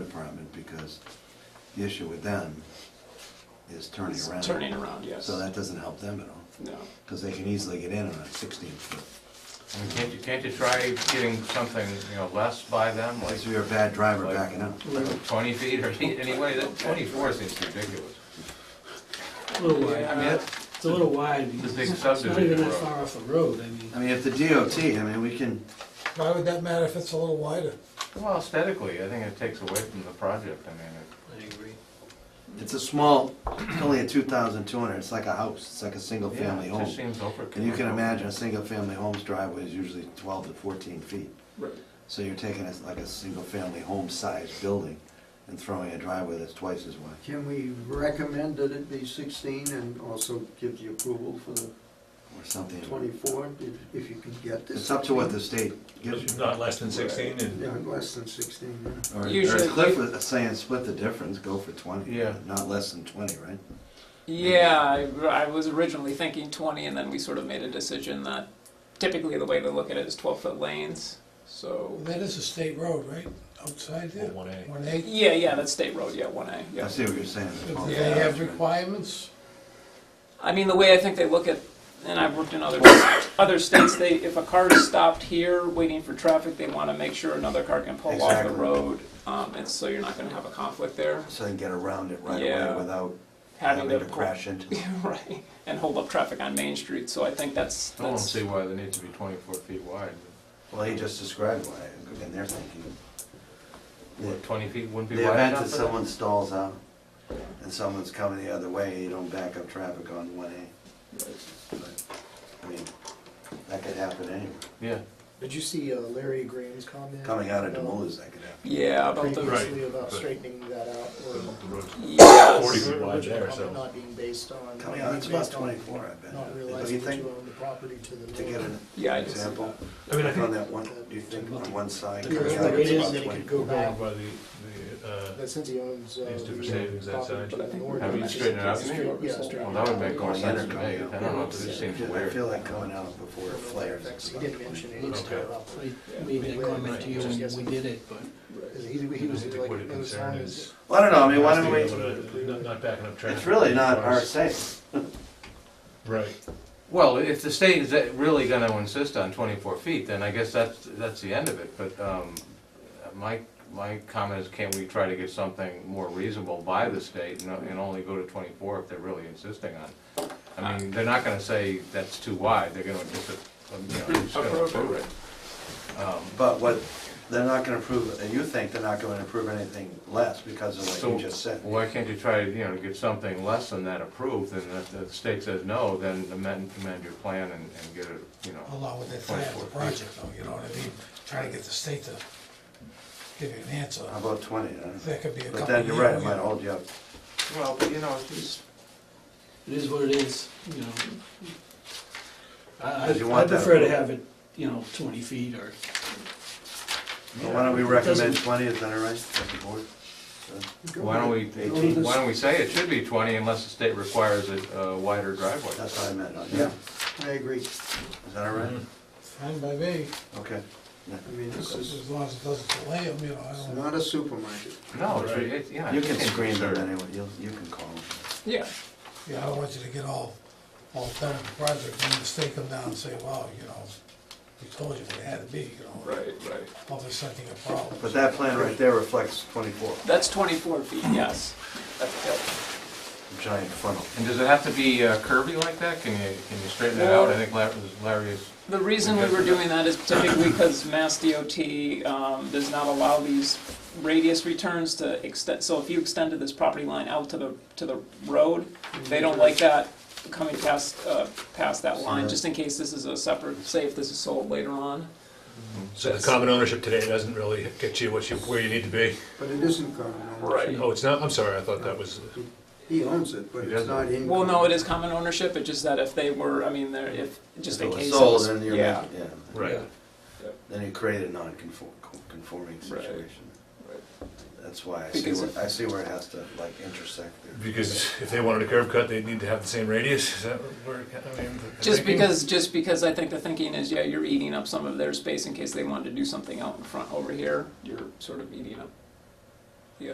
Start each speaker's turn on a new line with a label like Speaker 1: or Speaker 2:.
Speaker 1: because the issue with them is turning
Speaker 2: It's
Speaker 1: around.
Speaker 2: turning around, yes.
Speaker 1: So that doesn't help them at all,
Speaker 2: No.
Speaker 1: because they can easily get in on a sixteen foot.
Speaker 3: I mean, Can't you, can't you try getting something, you know, less by them, like
Speaker 1: Because you're a bad driver backing up.
Speaker 3: twenty feet or anyway, that twenty-four seems ridiculous. Uh,
Speaker 4: A little wide,
Speaker 3: I mean,
Speaker 4: huh?
Speaker 3: that's-
Speaker 4: it's a little wide.
Speaker 3: It's a big
Speaker 4: It's not even
Speaker 3: subdivision
Speaker 4: that
Speaker 3: road.
Speaker 4: far off a road, I mean.
Speaker 1: I mean, if the DOT, I mean, we can,
Speaker 5: Why would that matter if it's a little wider?
Speaker 3: Well, aesthetically, I think it takes away from the project, I mean, it-
Speaker 4: I agree.
Speaker 1: it's a small, it's only a two thousand two hundred, it's like a house, it's like a single
Speaker 3: yeah,
Speaker 1: family
Speaker 3: it just
Speaker 1: home.
Speaker 3: seems overkill.
Speaker 1: And you can imagine a single family home's driveway is usually twelve to fourteen feet.
Speaker 4: Right.
Speaker 1: So you're taking it like a single family home sized building and throwing a driveway that's twice as wide.
Speaker 6: Can we recommend that it be 16 and also give the approval for the
Speaker 1: or something.
Speaker 6: 24, if- if you can get this?
Speaker 1: It's up to what the state gives you.
Speaker 7: Not less than sixteen and.
Speaker 6: Yeah, less than 16, yeah.
Speaker 1: Or- Or
Speaker 2: Usually-
Speaker 1: Cliff was saying, split the difference, go for twenty.
Speaker 3: Yeah.
Speaker 1: Not less than twenty, right?
Speaker 2: Yeah, I, I was originally thinking 20, and then we sort of made a decision that typically the way to look at it is 12 foot lanes. So,
Speaker 5: That is a state road, right, outside there?
Speaker 7: One A.
Speaker 5: One eight,
Speaker 2: yeah, yeah, that's State Road, yeah, 1A.
Speaker 1: I
Speaker 2: Yeah.
Speaker 1: see what you're saying.
Speaker 5: do they have requirements?
Speaker 2: I mean, the way I think they look at, and I've worked in other other states, they if a car is stopped here waiting for traffic, they want to make sure another car can pull off
Speaker 1: Exactly.
Speaker 2: the road, um, and so you're not going to have a conflict there.
Speaker 1: So they can get around it right
Speaker 2: Yeah.
Speaker 1: away without
Speaker 2: Having
Speaker 1: having to
Speaker 2: to-
Speaker 1: crash into. it.
Speaker 2: right, and hold up traffic on Main Street. So I think that's
Speaker 3: I don't
Speaker 2: that's
Speaker 3: see why they need to be twenty-four feet wide,
Speaker 1: Well, he just described why, and they're thinking.
Speaker 3: what, twenty feet wouldn't be
Speaker 1: The
Speaker 3: wide
Speaker 1: event
Speaker 3: enough
Speaker 1: that
Speaker 3: for them?
Speaker 1: someone stalls out and someone's coming the other way, you don't back up traffic on one A. But, I mean, that could happen anywhere.
Speaker 3: Yeah,
Speaker 8: Did you see uh, Larry Graham's comment?
Speaker 1: Coming out of
Speaker 8: about-
Speaker 1: Demoulas, that could happen.
Speaker 2: yeah about the
Speaker 8: Previously about
Speaker 7: but-
Speaker 8: straightening that out or.
Speaker 7: The road's
Speaker 2: yes.
Speaker 7: Forty feet wide there,
Speaker 8: Original comment
Speaker 7: so.
Speaker 8: Not being based on.
Speaker 1: Coming
Speaker 8: not
Speaker 1: out, it's
Speaker 8: being
Speaker 1: about
Speaker 8: based on
Speaker 1: twenty-four, I bet.
Speaker 8: Not
Speaker 1: Do you
Speaker 8: realizing that
Speaker 1: think,
Speaker 8: you own the property to the.
Speaker 1: to get
Speaker 8: north.
Speaker 1: an
Speaker 2: Yeah, I just,
Speaker 1: example,
Speaker 7: I mean, I
Speaker 1: on
Speaker 7: think.
Speaker 1: that one, do you think on one side?
Speaker 8: The
Speaker 1: coming
Speaker 8: current
Speaker 1: out,
Speaker 8: limit
Speaker 1: it's
Speaker 8: is
Speaker 1: about
Speaker 8: that it could
Speaker 1: 24?
Speaker 8: go back,
Speaker 7: By the, the, uh,
Speaker 8: that since he owns. uh,
Speaker 7: These different
Speaker 8: the, uh,
Speaker 7: savings that
Speaker 8: property
Speaker 7: side.
Speaker 8: to
Speaker 2: But I
Speaker 8: the
Speaker 2: think
Speaker 8: north,
Speaker 3: having
Speaker 8: that
Speaker 3: it
Speaker 8: is
Speaker 3: straighten it out,
Speaker 8: straight-
Speaker 2: maybe?
Speaker 8: Yeah, straighten
Speaker 3: well,
Speaker 8: it
Speaker 3: that would
Speaker 8: out.
Speaker 3: make more
Speaker 1: Yeah,
Speaker 3: sense
Speaker 1: they're
Speaker 3: to me, I
Speaker 1: coming
Speaker 3: don't
Speaker 1: out.
Speaker 3: know, it just seems
Speaker 1: I
Speaker 3: weird.
Speaker 1: feel like coming out before it flares.
Speaker 8: He didn't mention it.
Speaker 7: Okay.
Speaker 4: I made that comment to you when we did it, but.
Speaker 8: He, he was
Speaker 7: I think
Speaker 8: like,
Speaker 7: what
Speaker 8: as
Speaker 7: it
Speaker 8: long
Speaker 7: concerned
Speaker 8: as.
Speaker 7: is-
Speaker 1: Well, I don't know, I mean, why don't we,
Speaker 7: we? Not, not backing up traffic.
Speaker 1: it's really not our
Speaker 7: ours.
Speaker 1: saying.
Speaker 7: Right.
Speaker 3: Well, if the state is really gonna insist on twenty-four feet, then I guess that's, that's the end of it, but, um, my, my comment is, can't we try to get something more reasonable by the state and, and only go to twenty-four if they're really insisting on? it? I mean, they're not gonna say that's too wide, they're gonna just, uh, you know, just gonna
Speaker 2: Approve it.
Speaker 3: approve it. Um,
Speaker 1: But what, they're not gonna approve, and you think they're not gonna approve anything less because of what
Speaker 3: So,
Speaker 1: you just said.
Speaker 3: why can't you try, you know, to get something less than that approved, and if the state says no, then amend, amend your plan and, and get it, you know.
Speaker 5: Along with the plan of the project, though, you know what I mean? Trying to get the state to give you an answer.
Speaker 1: How about twenty, huh?
Speaker 5: That could be a couple
Speaker 1: But then you're right, it might hold you up.
Speaker 3: Well, but you know, it's,
Speaker 4: It is what it is, you know. I, I
Speaker 1: Because you want
Speaker 4: I
Speaker 1: that
Speaker 4: prefer to
Speaker 1: approval.
Speaker 4: have it, you know, twenty feet or,
Speaker 1: Well, Why don't we recommend twenty, is that all right, with the board?
Speaker 3: Why don't we, why don't we say it should be twenty unless the state requires a a wider driveway?
Speaker 1: That's what I meant, yeah,
Speaker 6: I agree.
Speaker 1: is that all right?
Speaker 3: Mm-hmm.
Speaker 5: Fine by me,
Speaker 1: Okay.
Speaker 6: I mean, this is,
Speaker 5: as long as it doesn't delay them, you know, I
Speaker 6: it's
Speaker 2: Um,
Speaker 5: don't.
Speaker 6: not a supermarket.
Speaker 3: No, it's, it's, yeah.
Speaker 1: You
Speaker 3: it
Speaker 1: can
Speaker 3: seems
Speaker 1: screen them
Speaker 3: absurd.
Speaker 1: anyway, you, you can call them.
Speaker 2: yeah.
Speaker 5: Yeah, I don't want you to get all, all done with the project, and the state come down and say, wow, you know, we told you what it had to be, you know,
Speaker 2: Right, right.
Speaker 5: all of a sudden you got problems.
Speaker 1: But that plan right there reflects twenty-four,
Speaker 2: That's 24 feet, yes. That's, yeah.
Speaker 1: giant funnel.
Speaker 3: And does it have to be uh, curvy like that? Can you, can you straighten that out? I
Speaker 2: Well-
Speaker 3: think Larry is- Larry is,
Speaker 2: The reason we were doing that is typically because Mass DOT um, does not allow these radius returns to extend, so if you extended this property line out to the, to the road,
Speaker 1: Mm-hmm.
Speaker 2: they don't like that coming past, uh, past that line, just in case this is a separate, say if this is sold later on.
Speaker 1: Mm-hmm.
Speaker 7: So the common ownership today doesn't really get you what you, where you need to be.
Speaker 6: But it isn't common ownership.
Speaker 7: Oh, it's not, I'm sorry, I thought that was, uh,
Speaker 6: He owns it, but
Speaker 3: He
Speaker 6: it's not in.
Speaker 2: Well, no, it is common ownership, it's just that if they were, I mean, there, if, just
Speaker 1: If it
Speaker 2: in
Speaker 1: was
Speaker 2: case. it
Speaker 1: Sold,
Speaker 2: was-
Speaker 1: then you're,
Speaker 2: Yeah.
Speaker 1: making- yeah,
Speaker 7: right.
Speaker 1: then you create a non-conform, conforming
Speaker 2: Right.
Speaker 1: situation.
Speaker 2: Right.
Speaker 1: That's why I see
Speaker 2: Because
Speaker 1: where,
Speaker 2: if-
Speaker 1: I see where it has to like intersect there.
Speaker 7: Because if they wanted a curb cut, they'd need to have the same radius, is that where, I mean? the
Speaker 2: Just
Speaker 7: thinking?
Speaker 2: because, just because I think the thinking is, yeah, you're eating up some of their space in case they wanted to do something out in front over here. You're sort of eating up